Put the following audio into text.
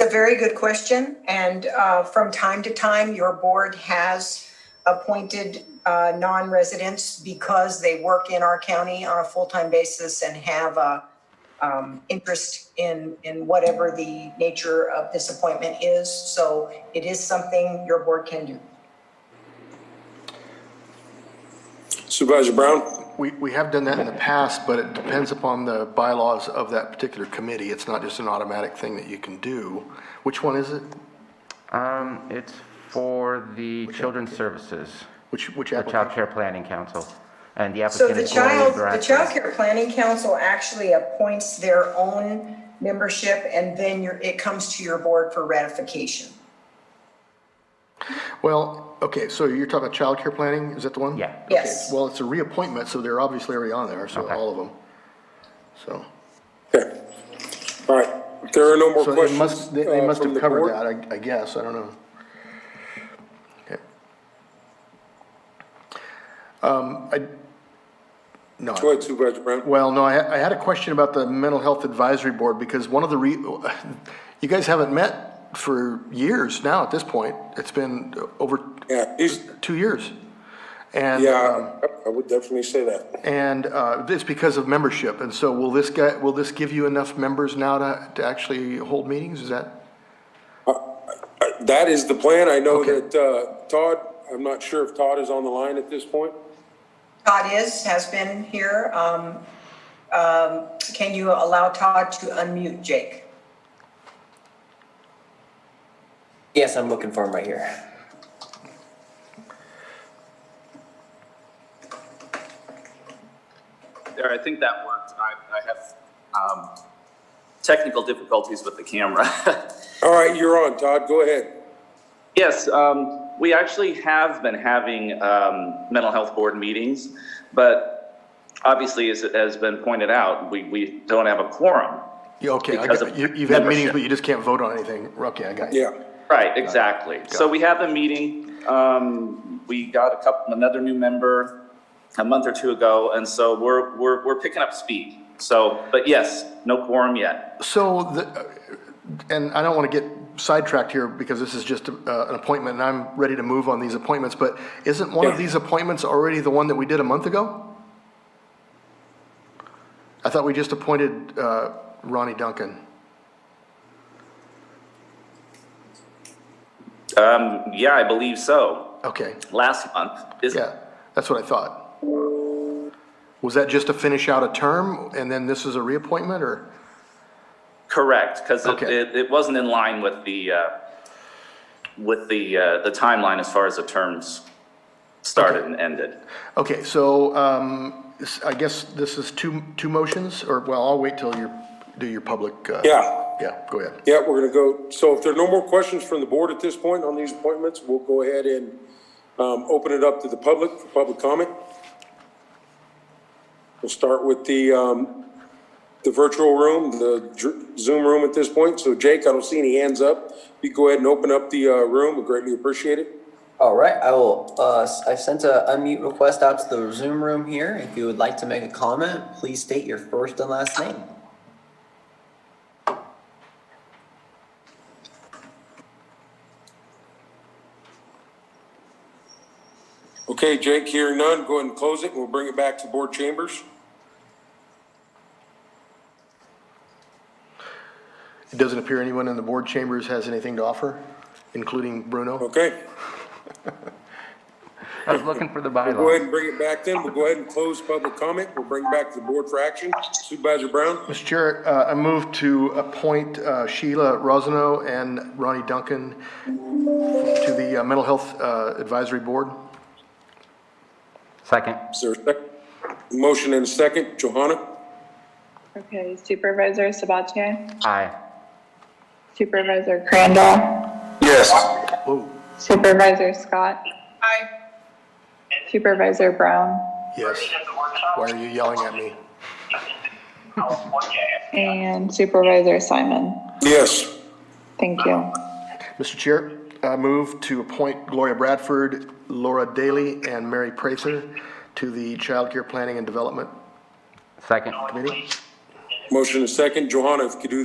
a very good question. And uh, from time to time, your board has appointed uh, non-residents because they work in our county on a full-time basis and have a um, interest in, in whatever the nature of this appointment is. So it is something your board can do. Supervisor Brown? We, we have done that in the past, but it depends upon the bylaws of that particular committee. It's not just an automatic thing that you can do. Which one is it? Um, it's for the Children's Services, Which, which the Child application? Care Planning Council, and the So applicant the is Gloria child, the Child Bradford. Care Planning Council actually appoints their own membership and then your, it comes to your board for ratification. Well, okay, so you're talking about child care planning? Is that the one? Yeah. Okay, Yes. Well, it's a reappointment, so they're obviously already on there, so Okay. all of them. So, Okay. All right, if there are no more so they questions. must, they- they uh, must from have the covered board. that, I, I guess, I don't know. Okay. Um, I, no. I- Go ahead, Supervisor Brown. Well, no, I, I had a question about the mental health advisory board because one of the re, you guys haven't met for years now at this point. It's been over Yeah, he's, two years. And, um, yeah, I- I would definitely say that. and, uh, it's because of membership. And so will this guy, will this give you enough members now to, to actually hold meetings? Is that? Uh, That is the plan. I know Okay. that uh, Todd, I'm not sure if Todd is on the line at this point. Todd is, has been here. Um, um, Can you allow Todd to unmute Jake? Yes, I'm looking for him right here. There, I think that worked. I, I have, um, technical difficulties with the camera. All right, you're on, Todd, go ahead. Yes, um, we actually have been having, um, mental health board meetings, but obviously, as it has been pointed out, we, we don't have a quorum. Yeah, okay, I Because got- of you, you've had meetings, membership. but you just can't vote on anything. Okay, I got you. Yeah, Right, exactly. So we have a meeting, um, we got a couple, another new member a month or two ago, and so we're, we're, we're picking up speed. So, but yes, no quorum yet. So, the- and I don't want to get sidetracked here because this is just uh, an appointment and I'm ready to move on these appointments, but isn't one of Yeah. these appointments already the one that we did a month ago? I thought we just appointed uh, Ronnie Duncan. Um, yeah, I believe so. Okay, Last month. Is, yeah, that's what I thought. Was that just to finish out a term and then this is a reappointment or? Correct, because it, Okay. it, it wasn't in line with the, uh, with the, uh, the timeline as far as the terms started and ended. Okay, so um, s- I guess this is two, two motions or, well, I'll wait till you do your public. uh, yeah, Yeah, go ahead. yeah, we're gonna go, so if there are no more questions from the board at this point on these appointments, we'll go ahead and um, open it up to the public for public comment. We'll start with the, um, the virtual room, the dr- Zoom room at this point. So Jake, I don't see any hands up. You go ahead and open up the uh, room, we greatly appreciate it. All right, I will, uh, s- I've sent a unmute request out to the Zoom room here. If you would like to make a comment, please state your first and last name. Okay, Jake, hearing none, go ahead and close it, and we'll bring it back to board chambers. It doesn't appear anyone in the board chambers has anything to offer, including Bruno. Okay, I was looking for the go ahead bylaws. and bring it back then. We'll go ahead and close public comment. We'll bring it back to the board for action. Supervisor Brown? Mr. Chair, uh, I move to appoint uh, Sheila Rosano and Ronnie Duncan to the uh, Mental Health uh, Advisory Board. Second, Is there a second? Motion and a second. Johanna? Okay, Supervisor Sabatier? aye. Supervisor Crandall? Yes. Whoa, Supervisor Scott? Aye. Supervisor Brown? yes. Why are you yelling at me? And Supervisor Simon? Yes. Thank you. Mr. Chair, I move to appoint Gloria Bradford, Laura Daly, and Mary Prather to the Child Care Planning and Development Second. Committee. Motion and a second. Johanna, if you could do the